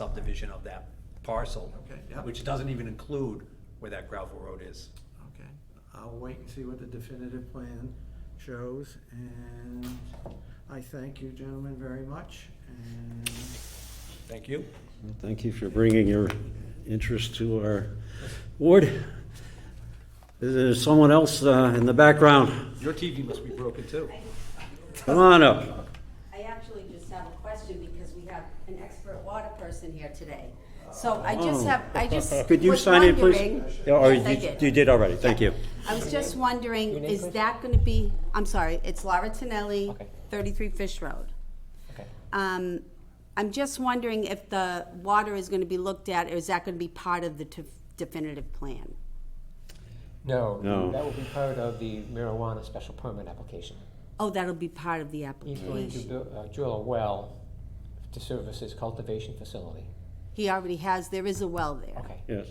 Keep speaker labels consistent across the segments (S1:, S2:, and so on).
S1: subdivision of that parcel.
S2: Okay, yeah.
S1: Which doesn't even include where that gravel road is.
S2: Okay, I'll wait and see what the definitive plan shows, and I thank you gentlemen very much, and
S1: Thank you.
S3: Well, Thank you for bringing your interest to our board. Is there someone else uh, in the background?
S1: Your TV must be broken too.
S3: Come on up.
S4: I actually just have a question because we have an expert water person here today. So I just
S3: Oh.
S4: have, I just
S3: Could you
S4: was
S3: sign in, please?
S4: wondering-
S3: Yeah, or
S4: Yes, I
S3: you-
S4: did.
S3: You did already, thank you.
S4: I was just wondering, is that gonna be, I'm sorry, it's Laura Tonelli,
S5: Okay.
S4: thirty-three Fish Road.
S5: Okay.
S4: Um, I'm just wondering if the water is gonna be looked at, or is that gonna be part of the def- definitive plan?
S5: No,
S3: No.
S5: that will be part of the marijuana special permit application.
S4: Oh, that'll be part of the
S5: He's going to
S4: application.
S5: buil- uh, drill a well to service his cultivation facility.
S4: He already has, there is a well there.
S5: Okay.
S3: Yes.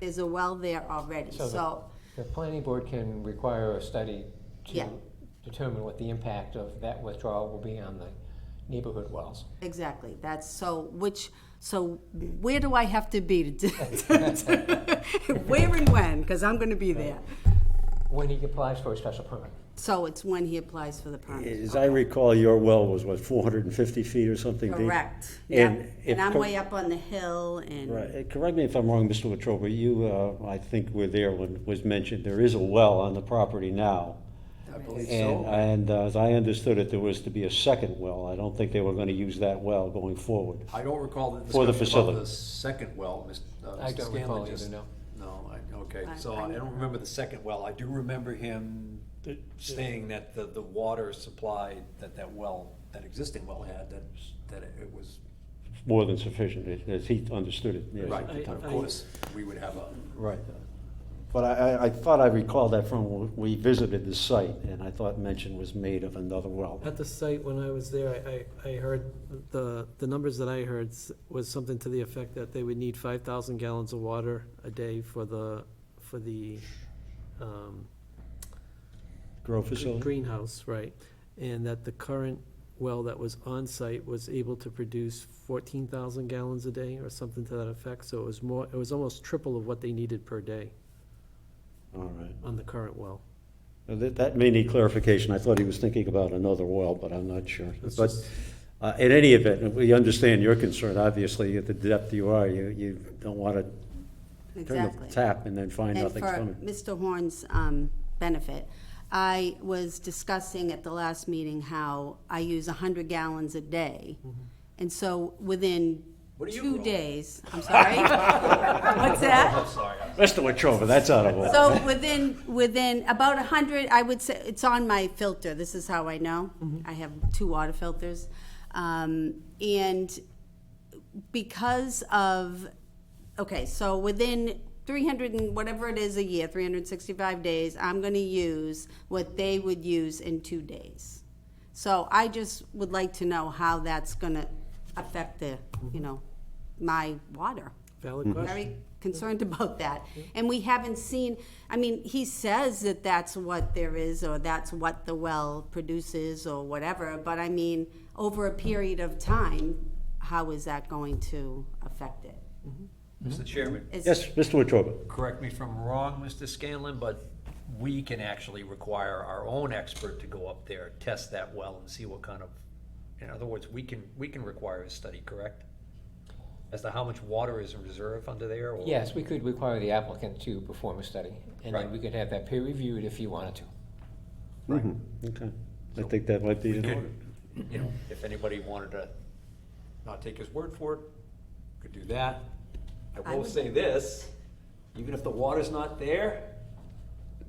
S4: There's a well there already,
S5: So the-
S4: so,
S5: The planning board can require a study to
S4: Yeah.
S5: determine what the impact of that withdrawal will be on the neighborhood wells.
S4: exactly, that's, so which, so where do I have to be to, to- to- where and when, because I'm gonna be there.
S5: When he applies for a special permit.
S4: So it's when he applies for the permit.
S3: As I recall, your well was, what, 450 feet or something deep?
S4: Correct,
S3: And
S4: yep,
S3: if
S4: and I'm
S3: co-
S4: way up on the hill and.
S3: Right, Uh, correct me if I'm wrong, Mr. Wetruba, you, uh, I think were there when it was mentioned, there is a well on the property now.
S1: I believe
S3: And,
S1: so.
S3: and uh, as I understood it, there was to be a second well. I don't think they were gonna use that well going forward.
S1: I don't recall the
S3: For the
S1: discussion about
S3: facility.
S1: the second well, Ms. uh,
S5: I
S1: Mr.
S5: don't
S1: Scanlon
S5: recall
S1: just-
S5: either, no.
S1: No, I, okay,
S4: I-
S1: so I
S4: I
S1: don't
S4: never-
S1: remember the second well. I do remember him saying that the, the water supply that that well, that existing well had, that, that it was,
S3: More than sufficient, as he understood it, yes,
S1: right,
S3: at the
S1: of
S3: time.
S1: course, we would have a
S3: Right. But I, I, I thought I recalled that from when we visited the site, and I thought mention was made of another well.
S6: At the site, when I was there, I, I I heard, the, the numbers that I heard s- was something to the effect that they would need five thousand gallons of water a day for the, for the, um,
S3: Grow facility?
S6: greenhouse, right? And that the current well that was on site was able to produce fourteen thousand gallons a day or something to that effect, so it was more, it was almost triple of what they needed per day
S3: All right.
S6: on the current well.
S3: Now, That, that may need clarification. I thought he was thinking about another well, but I'm not sure.
S6: It's
S3: But
S6: just-
S3: uh, in any event, we understand your concern, obviously, at the depth you are, you, you don't want to turn
S4: Exactly.
S3: the tap and then find
S4: And
S3: nothing's
S4: for
S3: coming.
S4: Mr. Horn's um, benefit, I was discussing at the last meeting how I use 100 gallons a day.
S3: Mm-hmm.
S4: And so within
S1: What do you
S4: two
S1: grow?
S4: days, I'm sorry. What's that?
S1: uh,
S3: Mr. Wetruba, that's out of order.
S4: So within, within about a hundred, I would say, it's on my filter, this is how I know. I have two water filters. Um, and because of, okay, so within three hundred and whatever it is a year, three hundred and sixty-five days, I'm gonna use what they would use in two days. So I just would like to know how that's gonna affect the, you know, my water Hmm.
S6: Valid question?
S4: very concerned about that. And we haven't seen, I mean, he says that that's what there is, or that's what the well produces, or whatever, but I mean, over a period of time, how is that going to affect it?
S1: Mr. Chairman,
S4: It's-
S3: Yes, Mr. Wetruba.
S1: correct me if I'm wrong, Mr. Scanlon, but we can actually require our own expert to go up there, test that well and see what kind of, in other words, we can, we can require a study, correct? As to how much water is in reserve under there or?
S5: Yes, we could require the applicant to perform a study, and
S1: Right.
S5: then we could have that peer reviewed if he wanted to.
S1: Right.
S3: Okay, I think that might be
S1: We
S3: in order.
S1: could, you know, if anybody wanted to not take his word for it, could do that. I
S4: I
S1: will
S4: would-
S1: say this, even if the water's not there,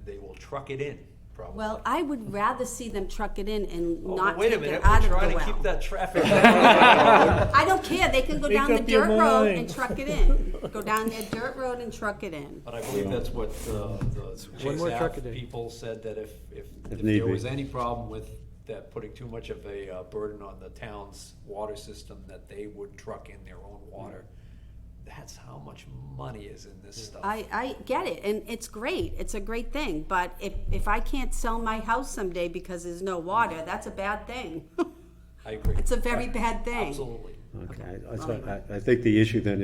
S1: they will truck it in, probably.
S4: Well, I would rather see them truck it in and
S1: Oh, but
S4: not
S1: Wait a
S4: take it
S1: minute,
S4: out
S1: we're
S4: of the
S1: trying to keep
S4: well.
S1: that traffic. Well,
S4: I don't care, they can go
S7: Make
S4: down the
S7: up your
S4: dirt road
S7: mind.
S4: and truck it in. Go down their dirt road and truck it in.
S1: But I believe that's what uh, the
S6: One more truck a
S1: JSAP
S6: day.
S1: people said, that if, if, if
S3: need
S1: there
S3: be.
S1: was any problem with that putting too much of a uh, burden on the town's water system, that they would truck in their own water. That's how much money is in this stuff.
S4: Mm. I, I get it, and it's great, it's a great thing, but if, if I can't sell my house someday because there's no water, that's a bad thing.
S1: I agree.
S4: It's a very bad thing.
S1: Absolutely.
S3: Okay, I- I, I think the issue then